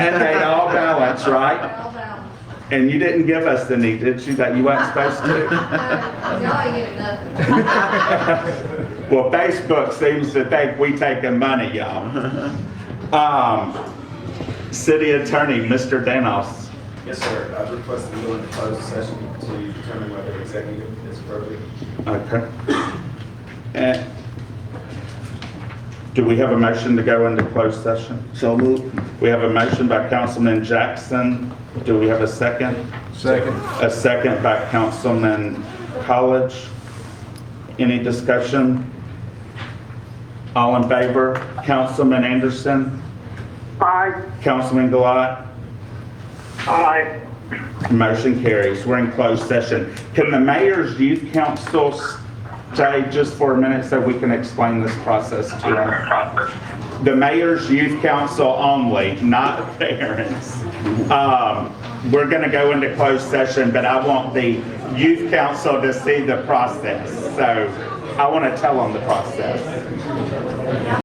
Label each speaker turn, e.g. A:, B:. A: That's right.
B: Well done.
A: And you didn't give us any, did you, that you weren't supposed to?
B: Uh, Y'all ain't getting nothing.
A: Well, Facebook seems to think we taking money, y'all. Um, City Attorney, Mr. Danos.
C: Yes, sir. I request that we go into closed session to determine whether executive is appropriate.
A: Okay. Eh, Do we have a motion to go into closed session?
D: So moved.
A: We have a motion by Councilman Jackson. Do we have a second?
E: Second.
A: A second by Councilman College. Any discussion? All in favor? Councilman Anderson?
F: Aye.
A: Councilman Gilat?
F: Aye.
A: Motion carries. We're in closed session. Can the mayor's youth council stay just for a minute so we can explain this process to them? The mayor's youth council only, not parents. Um, We're going to go into closed session, but I want the youth council to see the process. So I want to tell them the process.